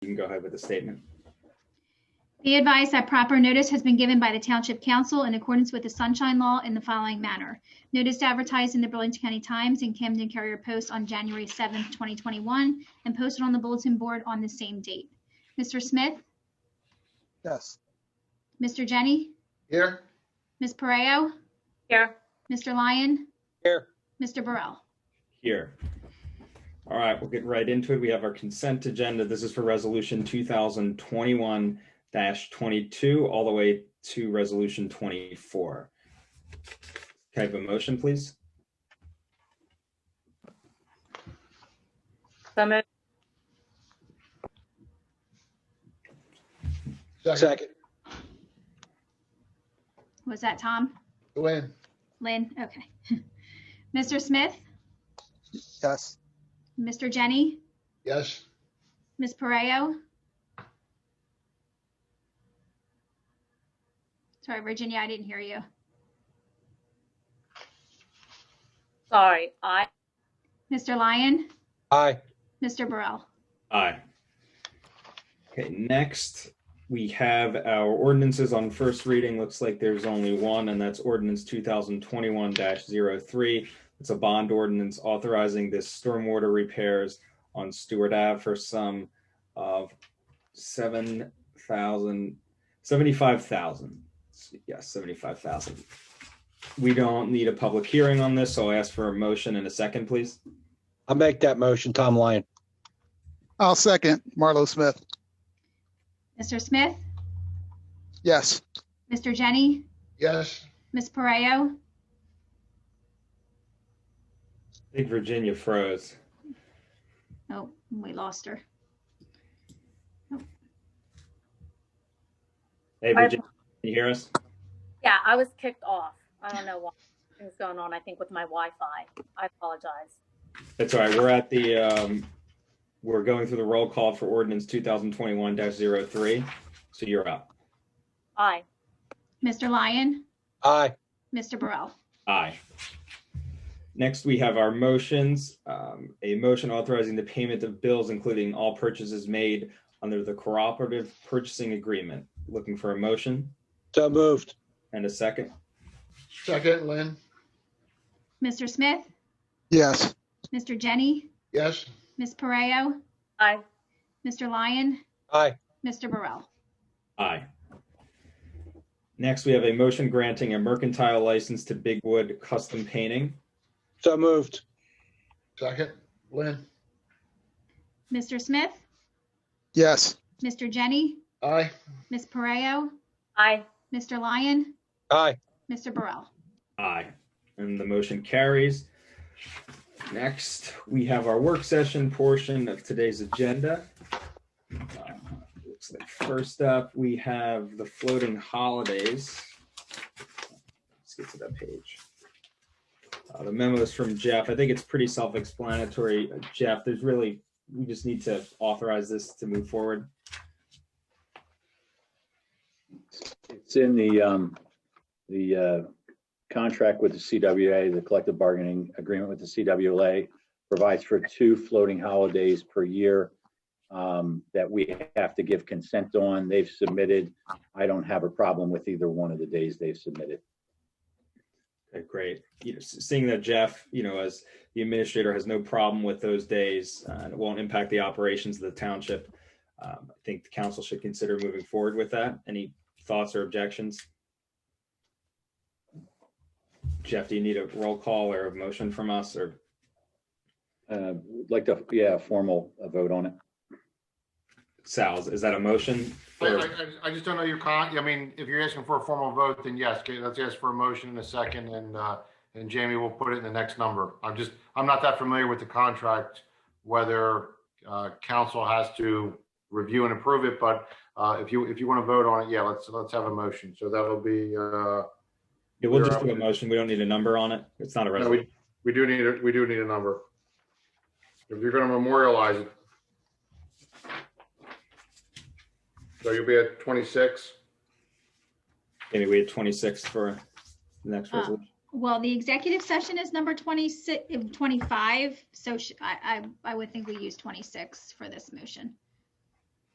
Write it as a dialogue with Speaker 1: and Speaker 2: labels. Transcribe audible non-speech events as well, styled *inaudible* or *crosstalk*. Speaker 1: You can go ahead with the statement.
Speaker 2: Be advised that proper notice has been given by the Township Council in accordance with the Sunshine Law in the following manner. Notice advertised in the Burlington County Times and Camden Carrier Post on January 7th, 2021, and posted on the bulletin board on the same date. Mr. Smith,
Speaker 3: Yes.
Speaker 2: Mr. Jenny,
Speaker 3: Here?
Speaker 2: Ms. Pareo,
Speaker 4: Here,
Speaker 2: Mr. Lyon,
Speaker 3: Here.
Speaker 2: Mr. Burrell.
Speaker 1: Here. All right, we'll get right into it. We have our consent agenda. This is for resolution two thousand twenty-one twenty-two, all the way to resolution twenty-four. Can I have a motion, please?
Speaker 4: so moved.
Speaker 3: Second.
Speaker 2: Was that Tom?
Speaker 3: Win.
Speaker 2: Lynn? Okay. *laughs* Mr. Smith,
Speaker 3: Yes.
Speaker 2: Mr. Jenny,
Speaker 3: Yes.
Speaker 2: Ms. Pareo. Sorry, Virginia, I didn't hear you.
Speaker 4: Sorry, I,
Speaker 2: Mr. Lyon,
Speaker 3: Aye.
Speaker 2: Mr. Burrell.
Speaker 1: Aye. Okay, next, we have our ordinances on first reading. Looks like there's only one, and that's ordinance two thousand twenty-one 3 It's a bond ordinance authorizing this stormwater repairs on Stewart Ave for some of seven thousand, seventy-five thousand. Yes, seventy-five thousand. We don't need a public hearing on this, so I ask for a motion and a second, please.
Speaker 5: I'll make that motion, Tom Lyon.
Speaker 6: I'll second Marlo Smith.
Speaker 2: Mr. Smith,
Speaker 6: Yes.
Speaker 2: Mr. Jenny,
Speaker 3: Yes.
Speaker 2: Ms. Pareo,
Speaker 1: I think Virginia froze.
Speaker 2: oh, we lost her.
Speaker 1: Hey,
Speaker 4: I-
Speaker 1: Virginia, can you hear us?
Speaker 4: yeah, I was kicked off. I don't know what is going on, I think with my Wi-Fi. I apologize.
Speaker 1: That's all right. We're at the, um, we're going through the roll call for ordinance two thousand twenty-one 3 So you're up.
Speaker 4: Aye,
Speaker 2: Mr. Lyon,
Speaker 5: Aye.
Speaker 2: Mr. Burrell.
Speaker 1: Aye. Next, we have our motions. Um, a motion authorizing the payment of bills, including all purchases made under the cooperative purchasing agreement. Looking for a motion
Speaker 5: So moved.
Speaker 1: and a second.
Speaker 3: Second, Lynn?
Speaker 2: Mr. Smith,
Speaker 6: Yes.
Speaker 2: Mr. Jenny,
Speaker 3: Yes.
Speaker 2: Ms. Pareo,
Speaker 4: aye,
Speaker 2: Mr. Lyon,
Speaker 5: Aye.
Speaker 2: Mr. Burrell.
Speaker 1: Aye. Next, we have a motion granting a mercantile license to Bigwood Custom Painting.
Speaker 5: So moved.
Speaker 3: Second, Lynn?
Speaker 2: Mr. Smith,
Speaker 6: Yes.
Speaker 2: Mr. Jenny,
Speaker 3: Aye.
Speaker 2: Ms. Pareo,
Speaker 4: aye,
Speaker 2: Mr. Lyon,
Speaker 5: Aye.
Speaker 2: Mr. Burrell.
Speaker 1: Aye. And the motion carries. Next, we have our work session portion of today's agenda. Uh, looks like First up, we have the floating holidays. Let's get to that page. Uh, The memo is from Jeff. I think it's pretty self-explanatory. Jeff, there's really, we just need to authorize this to move forward.
Speaker 7: It's in the, um, the, uh, contract with the CWA, the collective bargaining agreement with the CWA provides for two floating holidays per year, um, that we have to give consent on. They've submitted. I don't have a problem with either one of the days they've submitted.
Speaker 1: Okay, great. You know, s- seeing that Jeff, you know, as the administrator has no problem with those days, uh, and it won't impact the operations of the township. Um, I think the council should consider moving forward with that. Any thoughts or objections? Jeff, do you need a roll call or a motion from us or,
Speaker 7: Uh, would like to, yeah, formal uh, vote on it.
Speaker 1: Sal's, is that a motion?
Speaker 8: I,
Speaker 1: Or-
Speaker 8: I- I just don't know your con, I mean, if you're asking for a formal vote, then yes, okay, let's ask for a motion in a second and, uh, and Jamie will put it in the next number. I'm just, I'm not that familiar with the contract, whether, uh, council has to review and approve it, but, uh, if you, if you want to vote on it, yeah, let's, let's have a motion. So that'll be, uh,
Speaker 1: Yeah, we'll just do a motion. We don't need a number on it. It's not a
Speaker 8: no,
Speaker 1: resolution.
Speaker 8: we, we do need, a- we do need a number. If you're going to memorialize it. So you'll be at 26.
Speaker 1: Maybe we had 26 for the next
Speaker 2: Uh,
Speaker 1: resolution.
Speaker 2: Well, the executive session is number 26, eh, 25, so sh- I, I, I would think we use 26 for this motion.